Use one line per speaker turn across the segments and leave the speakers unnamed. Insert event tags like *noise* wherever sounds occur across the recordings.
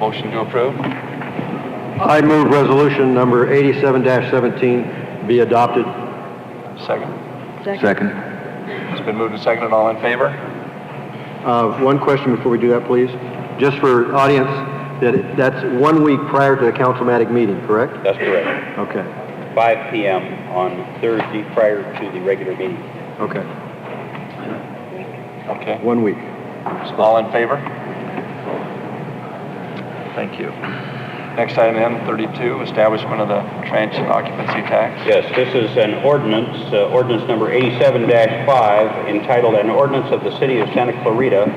Motion to approve?
I move resolution number 87-17 be adopted.
Second.
Second.
It's been moved and seconded. All in favor?
Uh, One question before we do that, please. Just for audience, that that's one week prior to the councilmatic meeting, correct?
That's correct.
Okay,
5 PM on Thursday prior to the regular meeting.
okay,
Okay.
one week.
All in favor? Thank you. Next item, M thirty-two, establishment of the transient occupancy tax.
Yes, this is an ordinance, uh, ordinance number 87-5, entitled An Ordinance of the City of Santa Clarita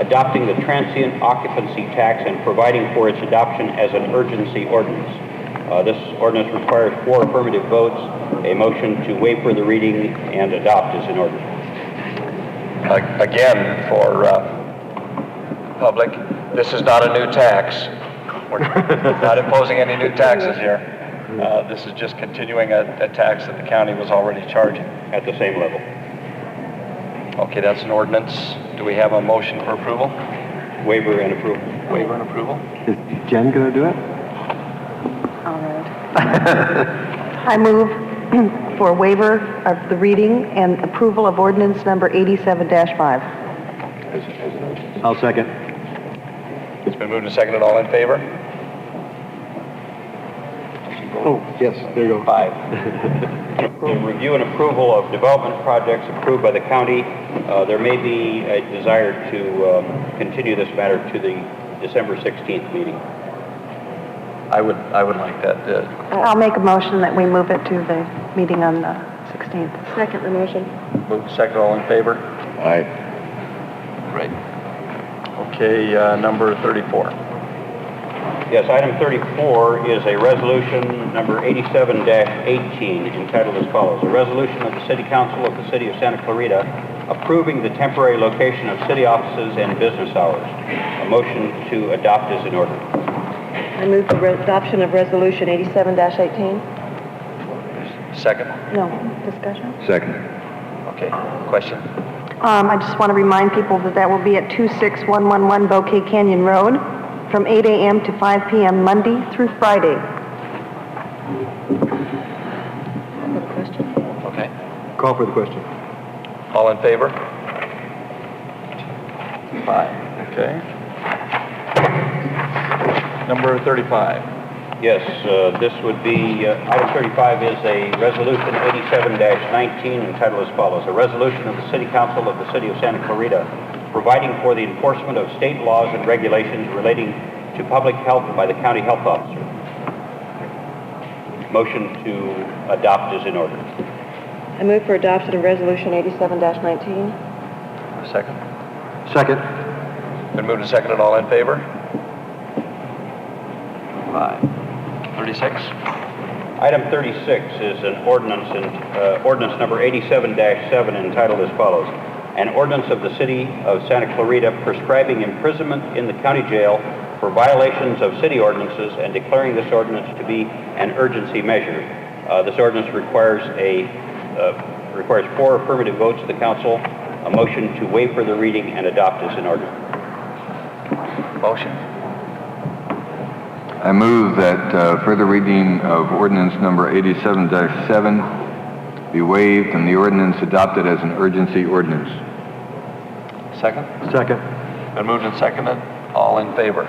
Adopting the Transient Occupancy Tax and Providing for its Adoption as an Urgency Ordinance. Uh, This ordinance requires four affirmative votes. A motion to waive for the reading and adopt is in order.
A- Again, for, uh, public, this is not a new tax. We're not imposing any new taxes here. Uh, this is just continuing a, a tax that the county was already charging.
At the same level.
Okay, that's an ordinance. Do we have a motion for approval?
Waiver and approval.
Waiver and approval?
Is Jen gonna do it?
All right. *laughs* I move *clears throat* for waiver of the reading and approval of ordinance number 87-5.
I'll second.
It's been moved and seconded. All in favor?
Oh, yes, there you go.
Five, the review and approval of development projects approved by the county. Uh, There may be a desire to um, continue this matter to the December 16th meeting.
I would, I would like that. uh,
I'll make a motion that we move it to the meeting on the 16th. Second the motion.
Move to second, all in favor?
Aye.
Great. Okay, uh, number 34.
Yes, item 34 is a resolution number 87-18 entitled as follows. A resolution of the City Council of the City of Santa Clarita approving the temporary location of city offices and business hours. A motion to adopt is in order.
I move the adoption of resolution 87-18.
Second?
No, discussion?
Second.
Okay, question?
Um, I just want to remind people that that will be at 26111 Bouquet Canyon Road from 8 a.m. to 5 p.m. Monday through Friday.
Okay.
Call for the question.
All in favor? Five. Okay. Number 35.
Yes, uh, this would be, uh, item 35 is a resolution 87-19 entitled as follows. A resolution of the City Council of the City of Santa Clarita providing for the enforcement of state laws and regulations relating to public health by the county health officer. Motion to adopt is in order.
I move for adoption of resolution 87-19.
Second?
Second.
Been moved and seconded, all in favor? Five. 36?
Item 36 is an ordinance, in- uh, ordinance number 87-7 entitled as follows. An ordinance of the City of Santa Clarita prescribing imprisonment in the county jail for violations of city ordinances and declaring this ordinance to be an urgency measure. Uh, This ordinance requires a, uh, requires four affirmative votes of the council. A motion to waive further reading and adopt is in order.
Motion?
I move that uh, further reading of ordinance number 87-7 be waived and the ordinance adopted as an urgency ordinance.
Second?
Second.
Been moved and seconded, all in favor?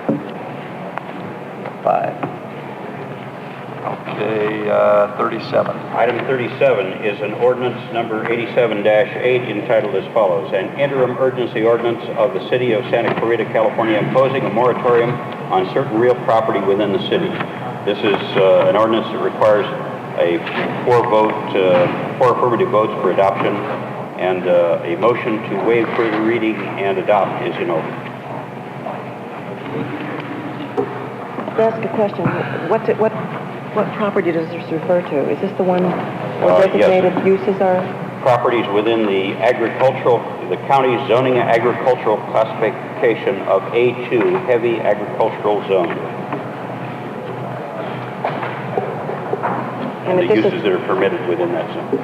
Five. Okay, uh, 37.
Item 37 is an ordinance number 87-8 entitled as follows, "An interim urgency ordinance of the City of Santa Clarita, California imposing a moratorium on certain real property within the city." This is uh, an ordinance that requires a four-vote, uh, four affirmative votes for adoption, and uh, a motion to waive further reading and adopt is in order.
Can I ask a question? What's it, what, what property does this refer to? Is this the one where
Uh, yes.
designated uses are?
Properties within the agricultural, the county's zoning agricultural classification of A2, heavy agricultural zone. and
And if
the
this
uses
is,
that are permitted within that zone.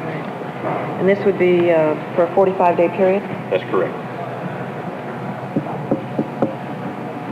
and this would be, uh, for a forty-five day period?
That's correct.